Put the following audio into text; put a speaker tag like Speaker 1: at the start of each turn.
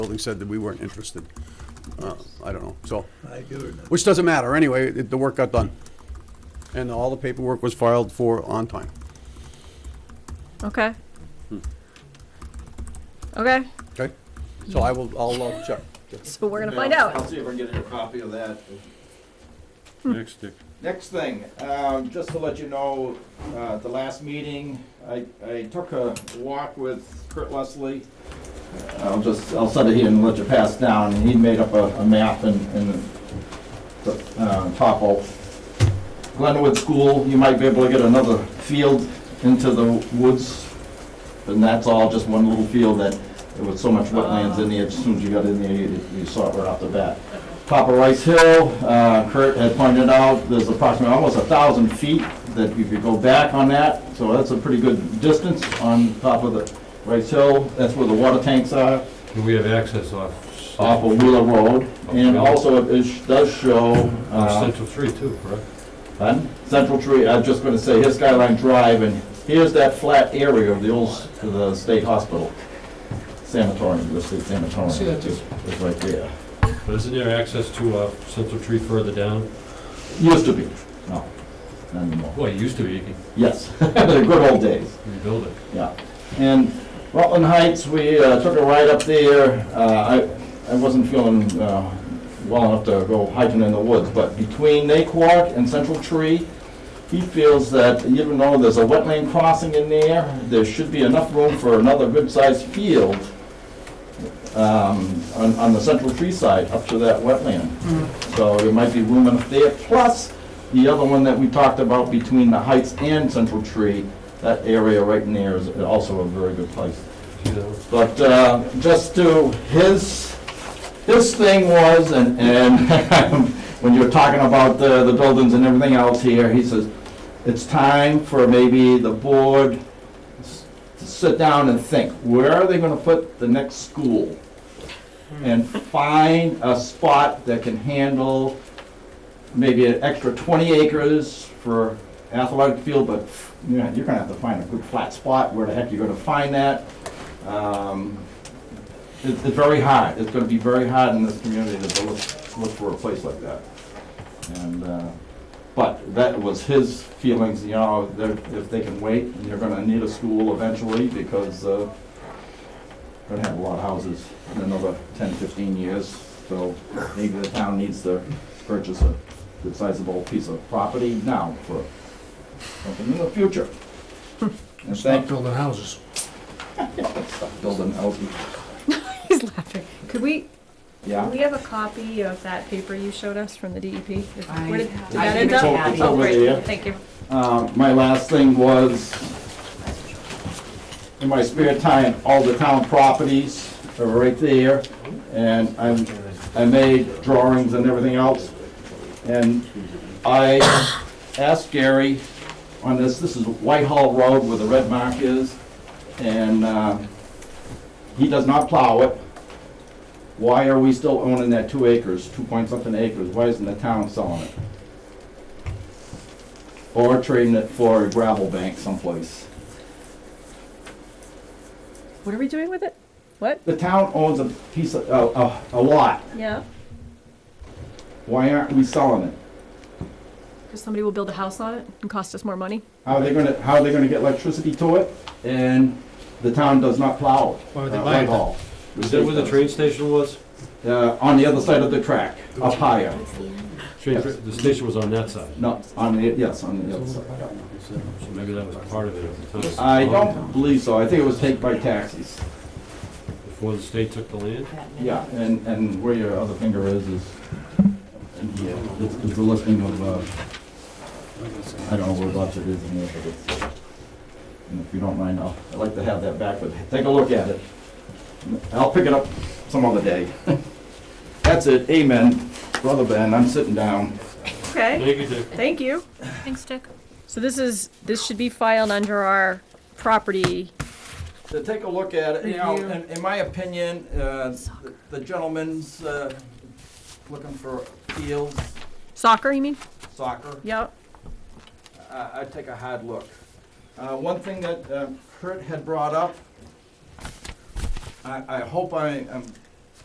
Speaker 1: building said that we weren't interested. Uh, I don't know, so,
Speaker 2: I do remember.
Speaker 1: which doesn't matter, anyway, it- the work got done. And all the paperwork was filed for on time.
Speaker 3: Okay. Okay,
Speaker 1: Okay, so I will, I'll uh, check.
Speaker 3: so we're gonna
Speaker 4: Yeah,
Speaker 3: find
Speaker 4: I'll
Speaker 3: out.
Speaker 4: see if I can get a copy of that.
Speaker 5: Next, Dick.
Speaker 4: Next thing, um, just to let you know, uh, at the last meeting, I, I took a walk with Kurt Leslie. I'll just, I'll send it here and let you pass down, and he made up a, a map and, and the, uh, topo. Glenwood School, you might be able to get another field into the woods, and that's all just one little field that, there was so much wetlands in there, as soon as you got in there, you, you saw it right off the bat. Copper Rice Hill, uh, Kurt had pointed out, there's approximately almost a thousand feet that you could go back on that, so that's a pretty good distance on top of the Rice Hill, that's where the water tanks are,
Speaker 5: Do we have access off?
Speaker 4: off of Wheeler Road, and also it sh- does show,
Speaker 5: Off
Speaker 4: uh,
Speaker 5: Central Three too, correct?
Speaker 4: on Central Tree, I'm just gonna say, here's Skyline Drive, and here's that flat area of the old, s- the state hospital, sanatorium, the state sanatorium.
Speaker 6: See that too.
Speaker 4: It's right there.
Speaker 5: But isn't there access to uh, Central Tree further down?
Speaker 4: Used to be, no, not anymore.
Speaker 5: Boy, it used to be, you can
Speaker 4: Yes, the good old days,
Speaker 5: rebuild it.
Speaker 4: yeah. And Rutland Heights, we uh, took a ride up there. Uh, I I wasn't feeling uh, well enough to go hiking in the woods, but between Naquark and Central Tree, he feels that even though there's a wetland crossing in there, there should be enough room for another good-sized field um, on on the Central Tree side up to that wetland. So there might be room enough there. Plus, the other one that we talked about between the Heights and Central Tree, that area right in there is also a very good place.
Speaker 5: See that one?
Speaker 4: But uh, just to, his, his thing was, and, and when you're talking about the, the buildings and everything else here, he says, it's time for maybe the board s- to sit down and think, where are they gonna put the next school? And find a spot that can handle maybe an extra twenty acres for athletic field, but, you know, you're gonna have to find a good flat spot, where the heck you're gonna find that? Um, It's it's very hard, it's gonna be very hard in this community to look, look for a place like that. And, uh, but that was his feelings, you know, they're- if they can wait, you're gonna need a school eventually because uh, we're gonna have a lot of houses in another 10, 15 years, so maybe the town needs to purchase a good sizable piece of property now for something in the future. And
Speaker 6: Stop
Speaker 4: thank,
Speaker 6: building houses.
Speaker 4: building houses,
Speaker 3: He's laughing. Could we,
Speaker 4: yeah.
Speaker 3: we have a copy of that paper you showed us from the DEP? If-
Speaker 7: I-
Speaker 3: where did- did
Speaker 7: I
Speaker 3: that
Speaker 7: think
Speaker 3: end
Speaker 7: it's
Speaker 3: up?
Speaker 7: over- it's
Speaker 3: Oh,
Speaker 4: over
Speaker 3: great.
Speaker 4: there.
Speaker 3: Thank you.
Speaker 4: Uh, My last thing was, in my spare time, all the town properties are right there, and I'm, I made drawings and everything else. And I asked Gary on this, this is Whitehall Road where the red mark is, and uh, he does not plow it. Why are we still owning that two acres, two point something acres? Why isn't the town selling it? Or trading it for a gravel bank someplace.
Speaker 3: What are we doing with it? What?
Speaker 4: The town owns a piece of, a, a- a lot.
Speaker 3: Yeah,
Speaker 4: Why aren't we selling it?
Speaker 3: because somebody will build a house on it and cost us more money.
Speaker 4: How are they gonna, how are they gonna get electricity to it? And the town does not plow it.
Speaker 6: Why would they
Speaker 4: Uh,
Speaker 6: buy it then?
Speaker 4: Whitehall.
Speaker 5: Is that where the train station was?
Speaker 4: Uh, on the other side of the track, up higher.
Speaker 5: Train, the station was on that side,
Speaker 4: No, on the, yes, on the other side.
Speaker 5: so maybe that was part of it at the time.
Speaker 4: I don't believe so. I think it was taken by taxis.
Speaker 5: Before the state took the land?
Speaker 4: Yeah, and, and where your other finger is, is, and yeah, it's, it's the listing of, uh, I don't know what lots it is in there, but it's, and if you don't mind, I'll, I'd like to have that back, but take a look at it. I'll pick it up some other day. That's it, amen. Brother Ben, I'm sitting down.
Speaker 3: Okay,
Speaker 5: Thank you, Dick.
Speaker 3: thank you.
Speaker 7: Thanks, Dick.
Speaker 3: So this is, this should be filed under our property.
Speaker 4: to take a look at it, you know,
Speaker 3: Review.
Speaker 4: in, in my opinion, uh, the gentleman's, uh, looking for fields,
Speaker 3: Soccer, you mean?
Speaker 4: soccer.
Speaker 3: Yep.
Speaker 4: I- I'd take a hard look. Uh, One thing that um, Kurt had brought up, I I hope I am